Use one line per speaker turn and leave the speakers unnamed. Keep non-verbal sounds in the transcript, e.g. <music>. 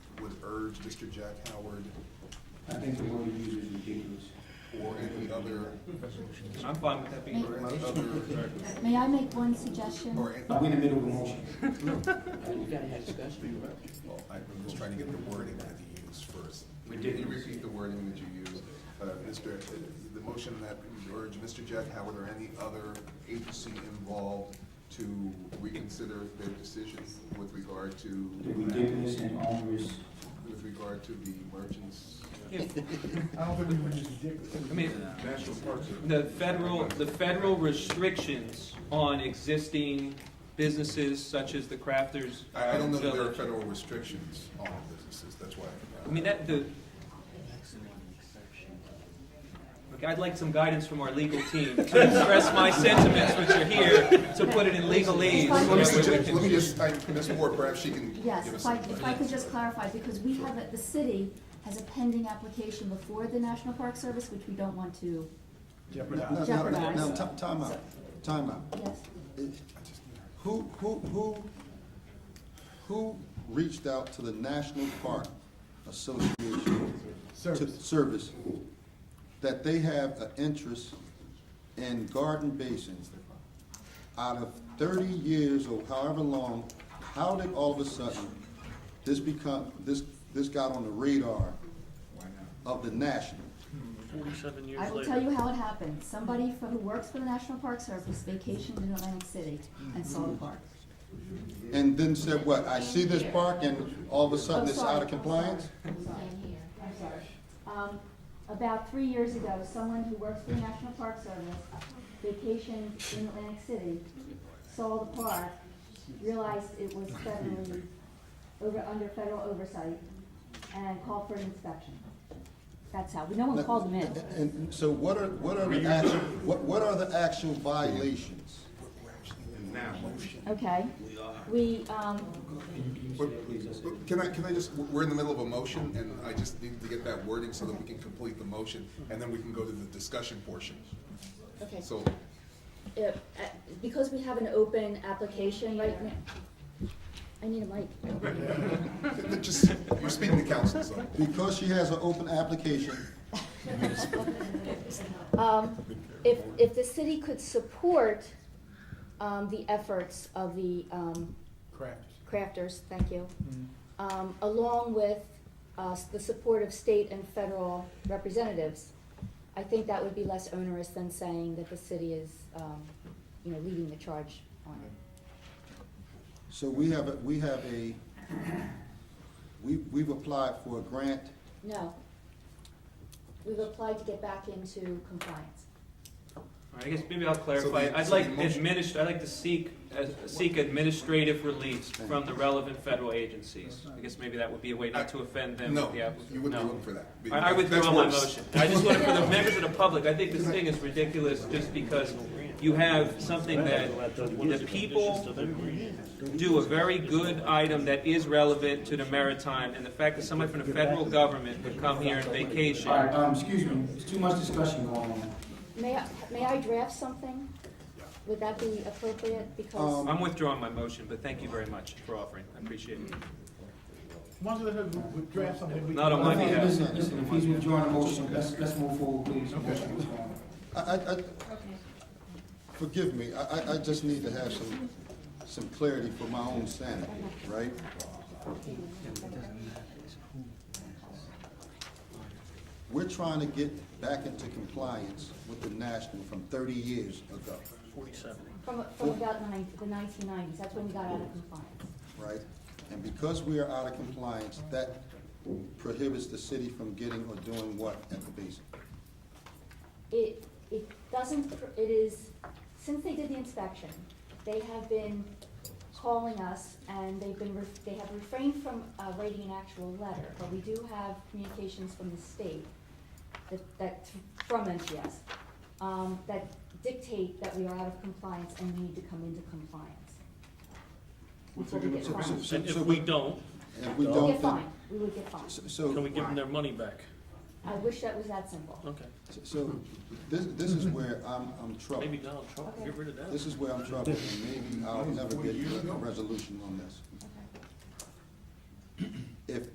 urge Mr. Jack Howard
I think the word you use is ridiculous.
or any other,
I'm fine with that being a
or
remote.
any other,
May I make one suggestion?
or, any-
But we in the middle of a motion.
We gotta have discussion.
well, I'm just trying to get the wording that you used first.
We
Can
did.
you repeat the wording that you used? Uh, Mr., the motion that we urge Mr. Jack Howard or any other agency involved to reconsider their decision with regard to,
The ridiculous and onerous,
with regard to the merchants.
I don't think we would just ridiculous.
I mean,
National parks.
the federal, the federal restrictions on existing businesses such as the crafters.
I, I don't know that there are
Village.
federal restrictions on businesses, that's why.
I mean, that, the, look, I'd like some guidance from our legal team to express my sentiments, which are here, to put it in legalese.
Well,
Let me
so that we
suggest,
can-
let me just, I, Ms. Moore, perhaps she can give
Yes,
us
if I,
some.
if I could just clarify, because we have, a- the city has a pending application before the National Park Service, which we don't want to,
No, no, no, no, ti- time out, time out.
yes.
Who, who, who, who reached out to the National Park Association? to-
Service.
Service, that they have an interest in garden basins. Out of thirty years or however long, how did all of a sudden this become, this, this got on the radar of the national?
Forty-seven years
I will
later.
tell you how it happened. Somebody for- who works for the National Park Service vacationed in Atlantic City and saw the park.
And then said what, I see this park and all of a sudden it's out of compliance?
I'm sorry. I'm sorry. Um, about three years ago, someone who works for the National Park Service vacationed in Atlantic City, saw the park, realized it was federally, over, under federal oversight, and called for an inspection. That's how, no one called them in.
And so what are, what are the actual, what, what are the actual violations?
Okay? We, um,
But Can I, can I just, we're in the middle of a motion, and I just need to get that wording so that we can complete the motion, and then we can go to the discussion portion.
okay.
So, <laughs>
if, uh, because we have an open application right now, I need a mic.
just, you're speaking to council, so.
Because she has an open application,
Um, If, if the city could support um, the efforts of the um,
Correct.
crafters, thank you, um, along with uh, the support of state and federal representatives, I think that would be less onerous than saying that the city is, um, you know, leading the charge on it.
so we have, a we have a, we, we've applied for a grant,
No. We've applied to get back into compliance.
I guess maybe I'll clarify.
the-
I'd
so the
like
motion-
administr, I'd like to seek, uh, seek administrative release from the relevant federal agencies. I guess maybe that would be a way not to offend them
No,
with the applicant.
you wouldn't be
No.
looking for that.
I, I
That's
withdraw my
worse.
motion. I just want it
<laughs>
for the members of the public. I think this thing is ridiculous just because you have something that the people do a very good item that is relevant to the maritime, and the fact that somebody from the federal government would come here and
All right,
vacation.
um, excuse me, there's too much discussion going on.
May I, may I draft something? Would that be appropriate? Because
Um,
I'm withdrawing my motion, but thank you very much for offering. I appreciate it.
Why don't you let us w- draft something? we
Not on
can-
my
Okay,
behalf.
Listen, listen, if he's withdrawing the motion, let's, let's move forward, please. Motion withdrawn.
I, I, I, forgive me, I, I, I just need to have some, some clarity for my own sanity, right? We're trying to get back into compliance with the national from thirty years ago,
from, from about nine, the nineteen nineties, that's when we got out of compliance.
right? And because we are out of compliance, that prohibits the city from getting or doing what at the basin?
It, it doesn't, pr- it is, since they did the inspection, they have been calling us and they've been, re- they have refrained from uh, writing an actual letter, but we do have communications from the state that, that, from NGS, um, that dictate that we are out of compliance and need to come into compliance. That's what we get
So-
fined.
so-
And if
so
we don't,
And we
We get
don't,
fined,
then-
we would get fined.
so-
can we
so,
give them their money back?
I wish that was that simple.
Okay,
so, this, this is where I'm, I'm troubled.
maybe Donald Trump, get rid of that.
This is where I'm troubled, and maybe I'll never get a resolution on this.